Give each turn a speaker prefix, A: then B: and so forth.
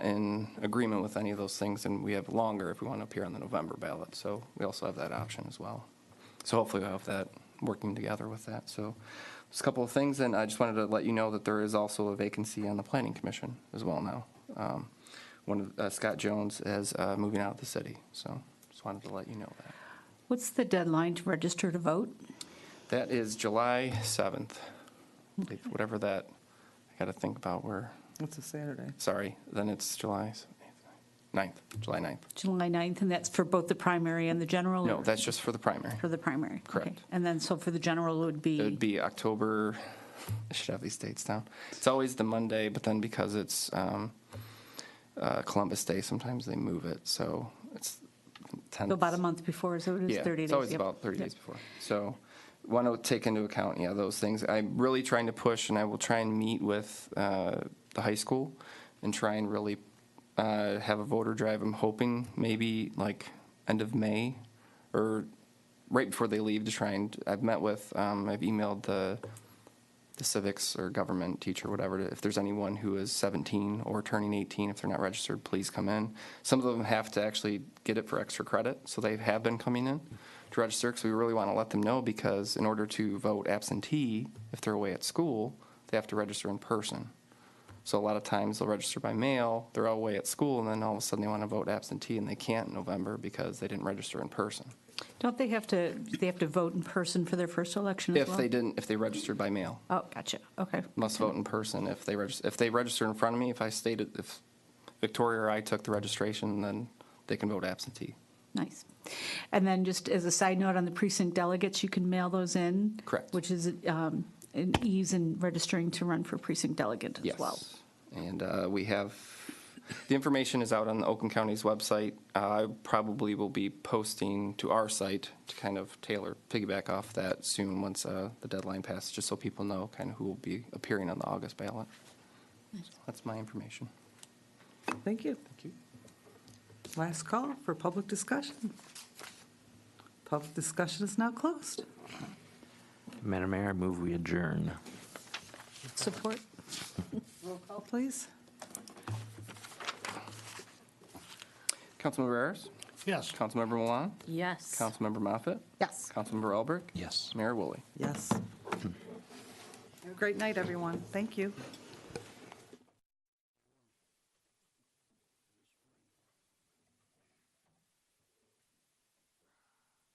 A: in agreement with any of those things, and we have longer if we want to appear on the November ballot. So we also have that option as well. So hopefully we'll have that working together with that. So just a couple of things, and I just wanted to let you know that there is also a vacancy on the Planning Commission as well now. Um, One of, uh, Scott Jones is uh, moving out of the city, so just wanted to let you know that.
B: What's the deadline to register to vote?
A: That is July 7th, If whatever that, I got to think about where,
C: It's a Saturday.
A: sorry, then it's July 9th, July 9th.
B: July 9th, and that's for both the primary and the general?
A: No,
B: or
A: that's just for the primary.
B: For the primary? Okay.
A: Correct.
B: And then, so for the general, it would
A: It would
B: be,
A: be October, I should have these dates down. It's always the Monday, but then because it's um, uh, Columbus Day, sometimes they move it, so it's 10th.
B: so about a month before, so it is 30 days?
A: Yeah, it's always
B: Yep.
A: about 30
B: Yep.
A: days before. So want to take into account, yeah, those things. I'm really trying to push, and I will try and meet with uh, the high school and try and really uh, have a voter drive. I'm hoping maybe like end of May or right before they leave to try and, I've met with, um, I've emailed the the civics or government teacher, whatever, if there's anyone who is 17 or turning 18, if they're not registered, please come in. Some of them have to actually get it for extra credit, so they have been coming in to register because we really want to let them know because in order to vote absentee, if they're away at school, they have to register in person. So a lot of times they'll register by mail, they're all away at school, and then all of a sudden they want to vote absentee and they can't in November because they didn't register in person.
B: Don't they have to, they have to vote in person for their first election as
A: If
B: well?
A: they didn't, if they registered by mail.
B: Oh, gotcha, okay.
A: must vote in person if they register, if they register in front of me, if I stated, if Victoria or I took the registration, then they can vote absentee.
B: Nice. And then just as a side note on the precinct delegates, you can mail those in?
A: Correct.
B: Which is um, an ease in registering to run for precinct delegate as
A: Yes.
B: well.
A: And uh, we have, the information is out on the Oakland County's website. Uh, I probably will be posting to our site to kind of tailor, piggyback off that soon once uh, the deadline passes, just so people know kind of who will be appearing on the August ballot. That's my information.
C: Thank you. Thank you. Last call for public discussion. Public discussion is now closed.
D: Madam Mayor, I move we adjourn.
B: Support?
C: Roll call, please.
A: Councilmember Ayers?
E: Yes.
A: Councilmember Milan?
B: Yes.
A: Councilmember Moffitt?
B: Yes.
A: Councilmember Albrecht?
D: Yes.
A: Mayor Woolley?
C: Yes. Have a Great night, everyone. Thank you.